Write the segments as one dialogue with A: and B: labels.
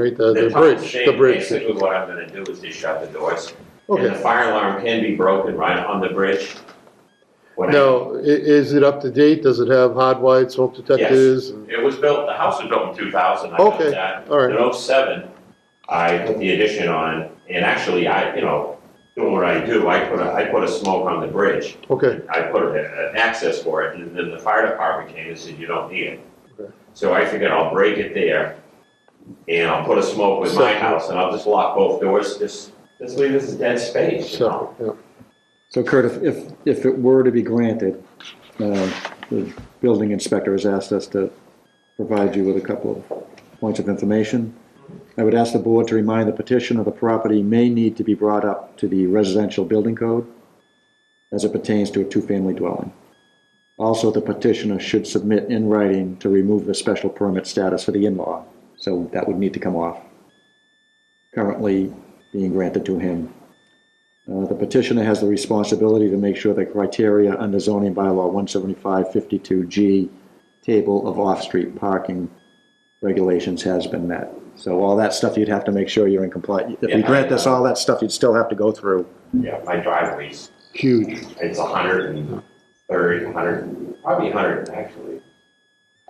A: Right, the, the
B: top
A: bridge,
B: thing,
A: the bridge.
B: Basically, what I'm gonna do is just shut the doors. And the
A: Okay.
B: fire alarm can be broken right on the bridge. When I-
A: Now, i- is it up to date? Does it have hot lights, smoke detectors? and-
B: It was built, the house was built in two thousand, I know
A: Okay.
B: that.
A: All right,
B: In '07, I put the addition on, and actually, I, you know, doing what I do, I put a, I put a smoke on the bridge.
A: okay,
B: I put a- an access for it, and then the fire department came and said, you don't need it.
A: Okay.
B: So I figured I'll break it there, and I'll put a smoke with my
A: Separate.
B: house, and I'll just lock both doors, just, just leave this as dead space, you know?
A: so, yeah.
C: So Kurt, if- if, if it were to be granted, uh, the building inspector has asked us to provide you with a couple of points of information. I would ask the board to remind the petitioner the property may need to be brought up to the residential building code as it pertains to a two-family dwelling. Also, the petitioner should submit in writing to remove the special permit status for the in-law, so that would need to come off. Currently being granted to him uh, The petitioner has the responsibility to make sure the criteria under zoning bylaw 175-52G, table of off-street parking regulations has been met. So all that stuff, you'd have to make sure you're in compliance. If you
B: Yeah.
C: grant this, all that stuff, you'd still have to go through.
B: Yeah, my driveway's,
A: huge.
B: it's a hundred and thirty, a hundred, probably a hundred, actually.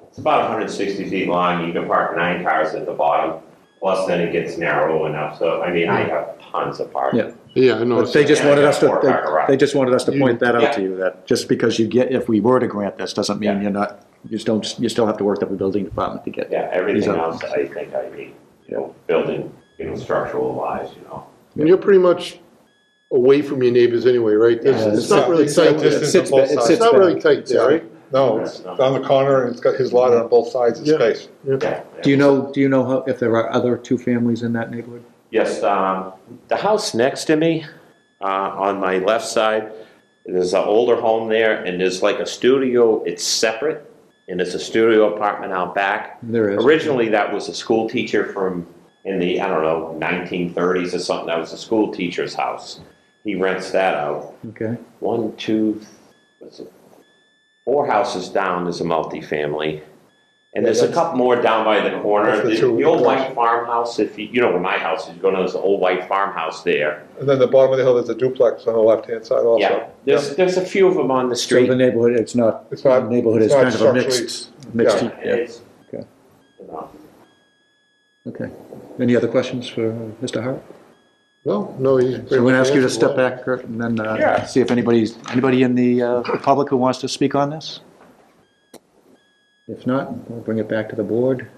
B: It's about hundred and sixty feet long, you can park nine cars at the bottom, plus then it gets narrow enough, so, I mean, I have tons of parking.
C: Yeah.
A: Yeah, I know.
C: But they
A: it's-
C: just
B: yeah,
C: wanted
B: yeah,
C: us to,
B: four car garage.
C: they- they just wanted us to
A: You-
C: point that out to
B: Yeah.
C: you, that just because you get, if we were to grant this, doesn't mean
B: Yeah.
C: you're not, you just don't, you still have to work up the building department to get.
B: Yeah, everything
C: These are-
B: else, I think I need, you know, building, you know, structural wise, you know.
A: And you're pretty much away from your neighbors anyway, right? There's-
C: Yeah,
A: It's
C: it's
A: not
D: not-
A: really
D: it's not
A: tight.
D: just-
A: It's
D: Distance
C: It sits
D: on both
C: ba- it
D: sides.
C: sits
A: not
C: back.
A: really tight there, right?
D: No, it's on the corner, and it's got his lot on both sides of
A: Yeah.
D: space.
B: Yeah.
C: Do you know, do you know how- if there are other two families in that neighborhood?
B: Yes, um, the house next to me, uh, on my left side, there's an older home there, and there's like a studio, it's separate, and it's a studio apartment out back.
C: There is.
B: Originally, that was a school teacher from, in the, I don't know, nineteen thirties or something, that was a school teacher's house. He rents that out.
C: Okay.
B: One, two, what's it? Four houses down is a multifamily. And there's a
D: that's-
B: couple more down by the corner.
D: That's the
B: The
D: two
B: the old
D: across.
B: white farmhouse, if you, you know where my house is, you go to this old white farmhouse there.
D: And then the bottom of the hill, there's a duplex on the left-hand side
B: Yeah,
D: also.
B: there's, there's a few of them on the
C: So the
B: street.
C: neighborhood, it's not,
D: It's
C: the
D: not,
C: neighborhood is
D: it's not
C: kind of a
D: structurally-
C: mixed, mixed,
B: And
C: yeah,
B: it's-
C: Okay.
B: you know,
C: okay. Any other questions for Mr. Hart?
A: No, no, he's.
C: So I'm going to ask you to step back, Kurt, and then
B: Yeah.
C: uh, see if anybody's, anybody in the uh, the public who wants to speak on this? If not, we'll bring it back to the board.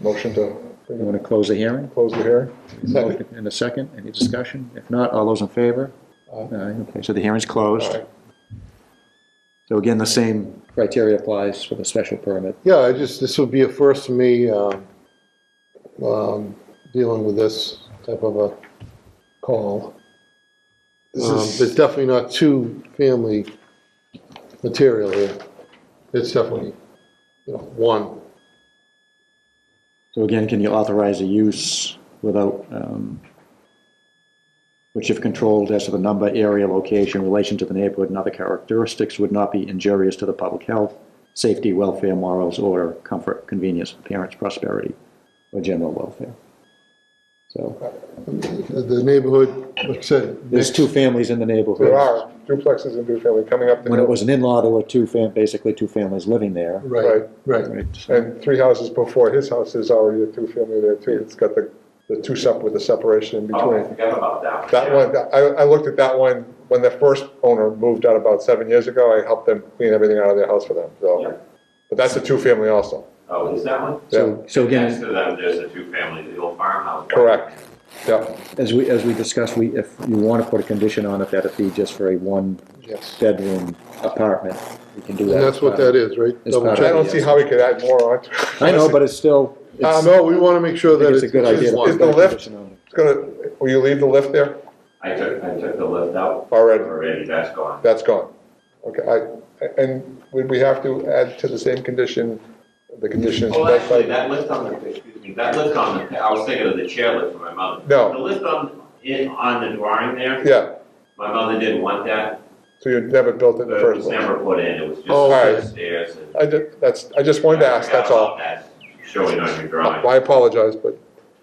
D: Motion to
C: We want to close the hearing.
D: close the hearing. Second.
C: In a second, any discussion? If not, all those in favor?
D: Aye.
C: Okay, so the hearing's closed.
D: Aye.
C: So again, the same criteria applies for the special permit.
A: Yeah, I just, this would be a first for me, um, um, dealing with this type of a call.
D: This
A: Um,
D: is-
A: There's definitely not two family material here. It's definitely, you know, one.
C: So again, can you authorize a use without, um, which if controlled as to the number, area, location, relation to the neighborhood, and other characteristics would not be injurious to the public health, safety, welfare, morals, order, comfort, convenience, appearance, prosperity, or general welfare. So
A: The the neighborhood, like I said.
C: there's two families in the neighborhood.
D: There are duplexes and two-family coming up the
C: When it
D: hill.
C: was an in-law, there were two fam, basically two families living there.
A: Right, right.
C: Right.
D: And three houses before his house is already a two-family there too. It's got the, the two sep, with the separation in
B: Oh, I
D: between.
B: forgot about that one.
D: That
B: yeah.
D: one, I, I looked at that one, when the first owner moved out about seven years ago, I helped them clean everything out of their house for them,
B: Yeah.
D: so. But that's a two-family also,
B: Oh, is that one?
C: So, so again,
B: Next to them, there's a two-family, the old farmhouse.
D: correct, yeah.
C: As we, as we discussed, we, if you want to put a condition on it, that it be just for a
A: Yes.
C: one-bedroom apartment, we can do that.
A: And that's what that is, right?
C: It's
A: Double
C: part of
D: I
A: check.
D: don't see how we could add more onto it.
C: I know, but it's still, it's,
A: Uh,
C: I
A: No, we want to make sure that
C: think
A: it's.
C: it's a good
A: it's
C: idea to
A: one.
D: is
C: put
D: the
C: that
D: lift-
C: condition on.
D: It's gonna, will you leave the lift there?
B: I took, I took the lift out
D: Already,
B: already, that's gone.
D: that's gone. Okay, I, and would we have to add to the same condition, the conditions?
B: Well,
D: that-
B: Oh, actually, that lift on the, excuse me, that lift on the, I was thinking of the chairlift for my mother. The
D: No,
B: lift on, in, on the drawing there,
D: yeah,
B: my mother didn't want that,
D: so you never built it in the
B: but it
D: first
B: was
D: place.
B: Uh, never put in, it was
A: Oh,
D: alright.
B: just upstairs and.
D: I did, that's, I just wanted to ask, that's all.
B: Showing on your drawing.
D: I apologize, but